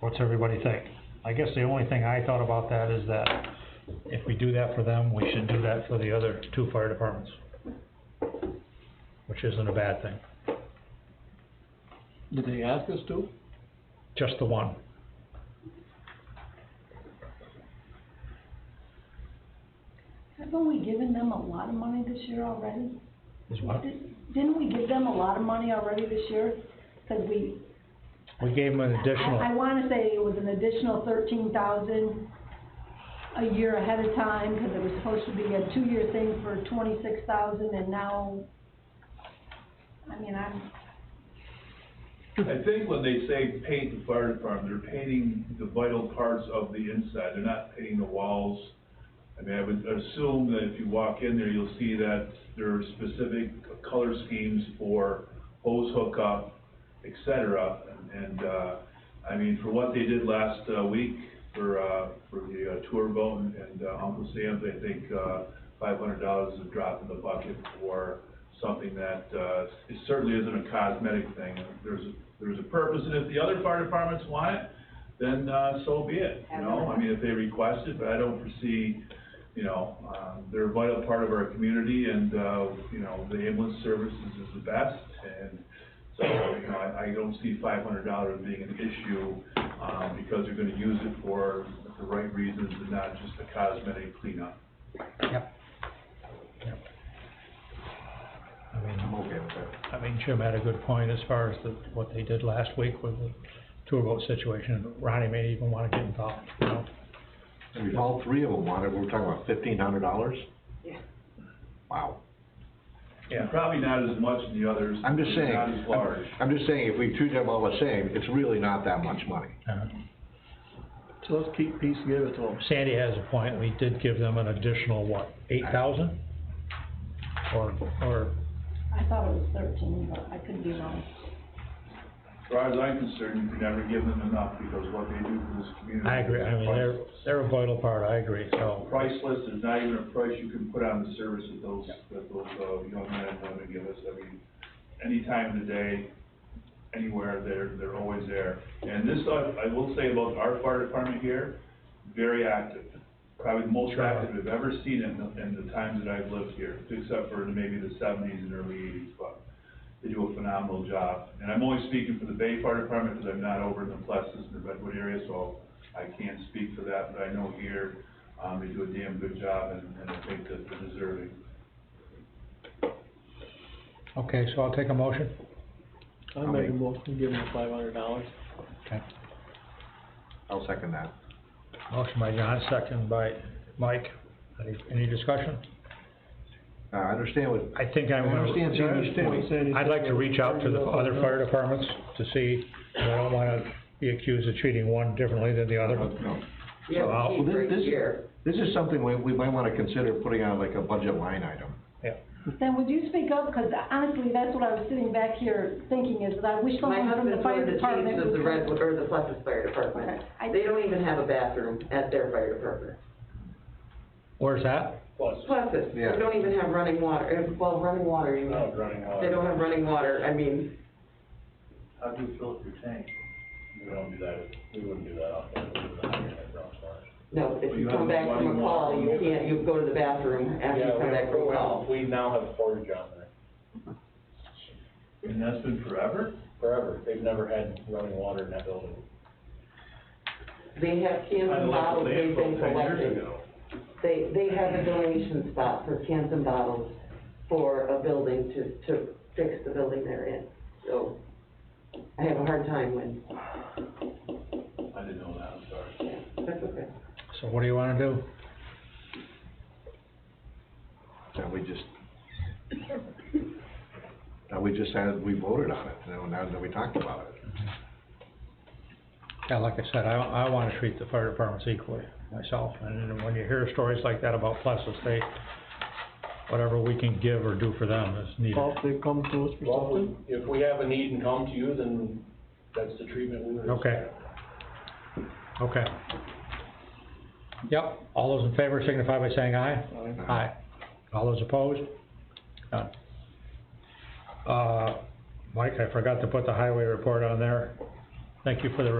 What's everybody think? I guess the only thing I thought about that is that if we do that for them, we should do that for the other two fire departments. Which isn't a bad thing, Did they ask us to? just the one. Haven't we given them a lot of money this year already? Is what? Did- Didn't we give them a lot of money already this year? Cause we, We gave them an I, I additional, wanna say it was an additional thirteen thousand a year ahead of time, cause it was supposed to be a two-year thing for twenty-six thousand, and now, I mean, I'm, I think when they say paint the fire department, they're painting the vital parts of the inside, they're not painting the walls. I mean, I would assume that if you walk in there, you'll see that there are specific color schemes for hose hookup, et cetera. And, uh, I mean, for what they did last, uh, week for, uh, for the uh, tour boat and- and uh, Uncle Sam's, I think, uh, five hundred dollars is a drop in the bucket for something that, uh, it certainly isn't a cosmetic thing. There's, there's a purpose, and if the other fire departments want it, then, uh, so be it, you know? I mean, if they request it, but I don't foresee, you know, um, they're a vital part of our community, and, uh, you know, the ambulance services is the best, and so, you know, I, I don't see five hundred dollars being an issue, um, because they're gonna use it for the right reasons and not just a cosmetic cleanup. yep. Yep. I mean, I'm okay with that. I mean, Jim had a good point as far as the, what they did last week with the tour boat situation. Ronnie may even wanna get involved, you know? I mean, if all three of them wanted, we're talking about fifteen hundred dollars? Yeah. Wow. Yeah. Probably not as much as the others. I'm just saying. Not as large. I'm just saying, if we treat them all the same, it's really not that much money. Uh, So let's keep peace and give it to them. Sandy has a point, we did give them an additional, what, eight thousand? Or, or, I thought it was thirteen, but I could be wrong. As far as I'm concerned, you can never give them enough, because what they do for this community. I agree, I mean, they're, they're a vital part, I agree, so, Priceless, there's not even a price you can put on the service that those, that those, uh, young men and women give us, I mean, any time of the day, anywhere, they're, they're always there. And this, I, I will say about our fire department here, very active, probably the most active I've ever seen in, the- in the times that I've lived here, except for maybe the seventies and early eighties, but they do a phenomenal job. And I'm only speaking for the Bay Fire Department, because I'm not over in the Plessis and the Redwood area, so I can't speak for that, but I know here, um, they do a damn good job, and, and I think that they're deserving. okay, so I'll take a motion. I make a motion to give them five hundred dollars. Okay. I'll second that. Motion by John, second by Mike, any, any discussion? Uh, I understand what, I think I'm I gonna. understand Sandy's point. I'd like to reach out to the other fire departments to see, I don't wanna be accused of treating one differently than the other. No. We have Well, a Well, sheet thi- right this- here. This is something we, we might wanna consider putting on like a budget line item. Then would you speak up, cause honestly, that's what I was sitting back here thinking, is that I wish My someone from the husband's one fire of the department chiefs of the would- Redwood, or the Pleasant Fire Department. Okay, I- They don't even have a bathroom at their fire department. Where's that? Pleasant, they Yeah. don't even have running water, uh, well, running water, you know. running They don't have running water, I mean, How do you fill up your tank? We don't do that, we wouldn't do that off there, we would not have that ground water. no, if Well, you you come have back from running a call, water. you can't, you go to the bathroom after you come back from a call. We now have a portage on there, And that's been forever? forever, they've never had running water in that building. They have cans Kinda and like the bottles they've been landfill ten years collecting. ago. They, they have a donation spot for cans and bottles for a building to, to fix the building they're in. So I have a hard time when, I didn't know that, I'm sorry. that's okay. So what do you wanna do? That we just, that we just had, we voted on it, you know, now that we talked about it. Yeah, like I said, I, I wanna treat the fire departments equally myself, and then when you hear stories like that about Plessis, they, whatever we can give or do for them is needed. Well, if they come to us Well, for if something, we- if we have a need and come to you, then that's the treatment we would. Okay. expect. Okay. Yep, all those in favor signify by saying aye. Aye. Aye. All those opposed? None. Uh, Mike, I forgot to put the highway report on there. Thank you for the